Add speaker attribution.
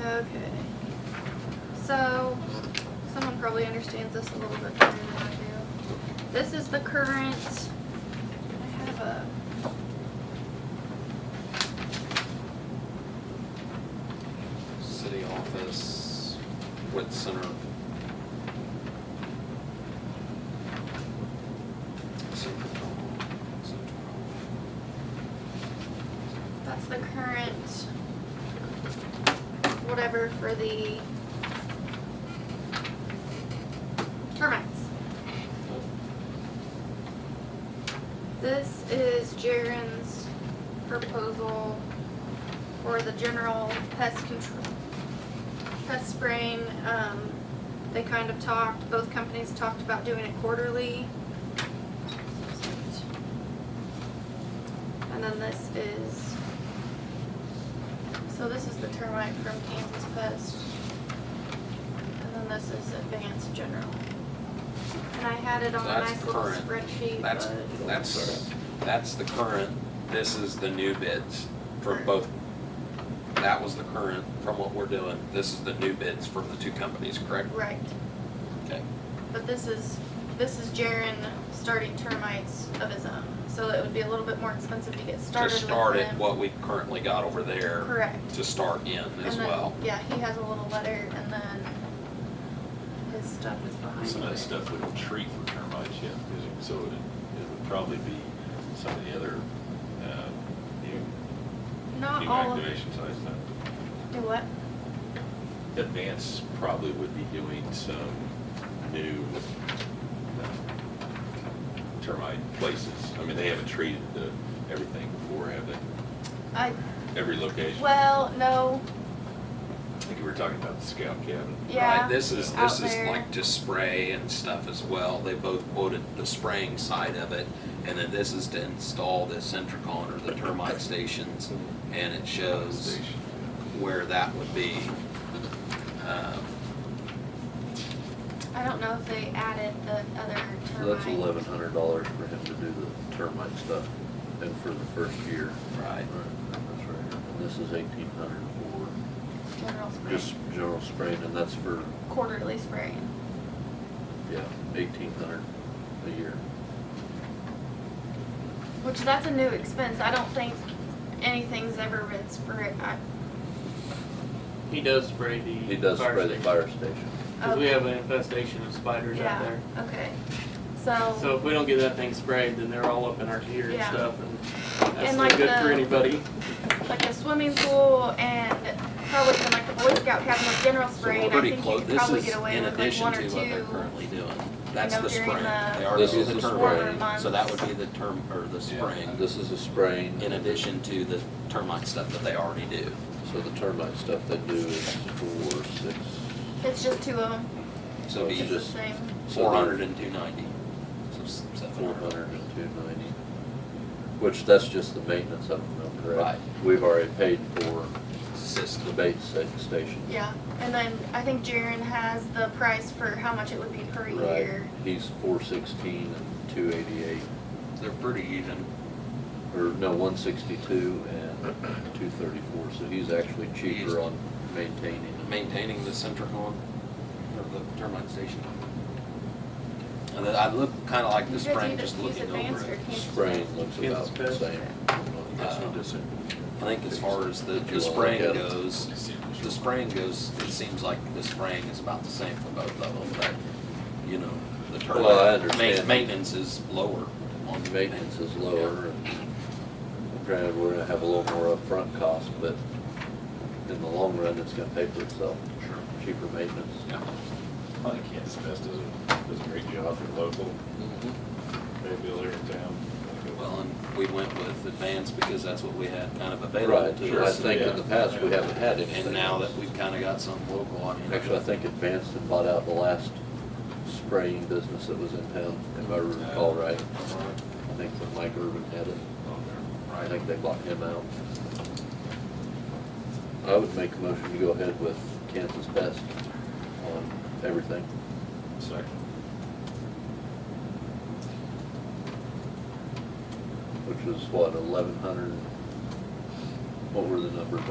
Speaker 1: Okay. So, someone probably understands this a little bit better than I do. This is the current, I have a.
Speaker 2: City office, wit center. Central Hall, Central Hall.
Speaker 1: That's the current whatever for the termites. This is Jaren's proposal for the general pest control, pest spraying. Um, they kind of talked, both companies talked about doing it quarterly. And then this is, so this is the termite from Kansas Pest. And then this is Advanced General. And I had it on a
Speaker 2: That's
Speaker 1: nice little
Speaker 2: current.
Speaker 1: spreadsheet,
Speaker 2: That's,
Speaker 1: but-
Speaker 2: that's, that's the current, this is the new bids from
Speaker 1: Right.
Speaker 2: both. That was the current from what we're doing, this is the new bids from the two companies, correct?
Speaker 1: Right,
Speaker 2: Okay.
Speaker 1: but this is, this is Jaren starting termites of his own, so it would be a little bit more expensive to get started
Speaker 2: Just
Speaker 1: with
Speaker 2: start at
Speaker 1: him.
Speaker 2: what we've currently got over there
Speaker 1: Correct.
Speaker 2: to start in as
Speaker 1: And then-
Speaker 2: well.
Speaker 1: Yeah, he has a little letter and then his stuff is behind.
Speaker 3: Some of that
Speaker 1: it.
Speaker 3: stuff we don't treat for termites yet, is it? so it, it would probably be some of the other, uh, new,
Speaker 1: Not
Speaker 3: new
Speaker 1: all of
Speaker 3: activation sites. uh,
Speaker 1: Do what?
Speaker 3: Advance probably would be doing some new uh, termite places. I mean, they haven't treated the, everything before, have they?
Speaker 1: I,
Speaker 3: Every location. I
Speaker 1: well, no,
Speaker 3: think we were talking about the scout cabin.
Speaker 1: yeah.
Speaker 2: Right, this is,
Speaker 1: out
Speaker 2: this is
Speaker 1: there.
Speaker 2: like just spray and stuff as well. They both quoted the spraying side of it. And then this is to install the centricon or the termite stations. And it shows
Speaker 3: Station.
Speaker 2: where that would be. Um,
Speaker 1: I don't know if they added the other
Speaker 4: So that's
Speaker 1: termite.
Speaker 4: eleven hundred dollars for him to do the termite stuff and for the first year.
Speaker 2: Right.
Speaker 4: That's right. And this is eighteen hundred for
Speaker 1: General spray,
Speaker 4: just general spraying and that's for,
Speaker 1: quarterly spraying.
Speaker 4: yeah, eighteen hundred a year.
Speaker 1: Which that's a new expense. I don't think anything's ever been sprayed. I,
Speaker 5: He does spray the.
Speaker 4: He does
Speaker 5: fire
Speaker 4: spray the
Speaker 5: station.
Speaker 4: fire station.
Speaker 5: Cause we have an infestation of spiders out
Speaker 1: yeah.
Speaker 5: there.
Speaker 1: Okay.
Speaker 5: So if we don't get that thing sprayed, then they're all up in our gear and
Speaker 1: Yeah.
Speaker 5: stuff and that's
Speaker 1: And
Speaker 5: not
Speaker 1: like
Speaker 5: good for
Speaker 1: the-
Speaker 5: anybody.
Speaker 1: like a swimming pool and probably even like the Boy Scout cabin with general
Speaker 2: So
Speaker 1: spray,
Speaker 2: we're
Speaker 1: and I
Speaker 2: pretty
Speaker 1: think you
Speaker 2: close,
Speaker 1: could
Speaker 2: this
Speaker 1: probably
Speaker 2: is
Speaker 1: get away
Speaker 2: in
Speaker 1: with like
Speaker 2: addition
Speaker 1: one
Speaker 2: to
Speaker 1: or
Speaker 2: what they're
Speaker 1: two.
Speaker 2: currently doing. That's
Speaker 1: know,
Speaker 2: the
Speaker 1: during
Speaker 2: spraying.
Speaker 1: the
Speaker 2: They already
Speaker 4: This
Speaker 2: did
Speaker 4: is
Speaker 2: the
Speaker 4: the
Speaker 2: termite.
Speaker 1: spraying.
Speaker 2: So that would be the term, or the
Speaker 3: Yeah.
Speaker 2: spraying,
Speaker 4: This is a spraying.
Speaker 2: in addition to the termite stuff that they already do.
Speaker 4: So the termite stuff they do is four, six,
Speaker 1: It's just two of them.
Speaker 2: So it'd be
Speaker 1: It's
Speaker 4: It's
Speaker 1: the
Speaker 4: just-
Speaker 1: same.
Speaker 2: four hundred and two ninety. So seven
Speaker 4: four
Speaker 2: hundred.
Speaker 4: hundred and two ninety. Which that's just the maintenance of them, though, correct?
Speaker 2: Right.
Speaker 4: We've already paid for the
Speaker 2: System.
Speaker 4: bait sa- station.
Speaker 1: Yeah, and then I think Jaren has the price for how much it would be per
Speaker 4: Right,
Speaker 1: year.
Speaker 4: he's four sixteen and two eighty-eight,
Speaker 2: They're pretty even.
Speaker 4: or no, one sixty-two and two thirty-four, so he's actually
Speaker 2: He's-
Speaker 4: cheaper on maintaining.
Speaker 2: Maintaining the Centricon or the termite station. And then I look kind of like
Speaker 1: You
Speaker 2: the
Speaker 1: guys
Speaker 2: spraying,
Speaker 1: either
Speaker 2: just
Speaker 1: use
Speaker 2: looking
Speaker 1: advanced
Speaker 2: over it.
Speaker 1: or Kansas
Speaker 4: Spraying looks about
Speaker 5: Kansas
Speaker 4: the
Speaker 5: Pest.
Speaker 4: same.
Speaker 2: That's not I think as far as the,
Speaker 4: Did
Speaker 2: the
Speaker 4: you wanna
Speaker 2: spraying
Speaker 4: look at it?
Speaker 2: goes, the spraying goes, it seems like the spraying is about the same for both of them, but, you know, the
Speaker 4: Well, I
Speaker 2: termite, ma-
Speaker 4: understand.
Speaker 2: maintenance is lower on the
Speaker 4: Uh, Maintenance is lower, and granted, we're gonna have a little more upfront cost, but in the long run, it's gonna pay for itself,
Speaker 2: Sure.
Speaker 4: cheaper maintenance.
Speaker 2: Yeah.
Speaker 3: I think Kansas Pest does a, does a great job for local,
Speaker 4: Mm-hmm.
Speaker 3: maybe they're in town.
Speaker 2: Well, and we went with advanced because that's what we had kind of available
Speaker 4: Right,
Speaker 2: to
Speaker 4: I
Speaker 2: us.
Speaker 4: think in the past, we haven't had anything.
Speaker 2: And now that we've kind of got some local, I mean.
Speaker 4: Actually, I think Advanced had bought out the last spraying business that was in town, if I recall right.
Speaker 2: Uh,
Speaker 4: I think that Mike Urban had it. I
Speaker 2: Right,
Speaker 4: think they bought him out. I would make a motion to go ahead with Kansas Pest on everything.
Speaker 3: Second.
Speaker 4: which was what, eleven hundred? What were the numbers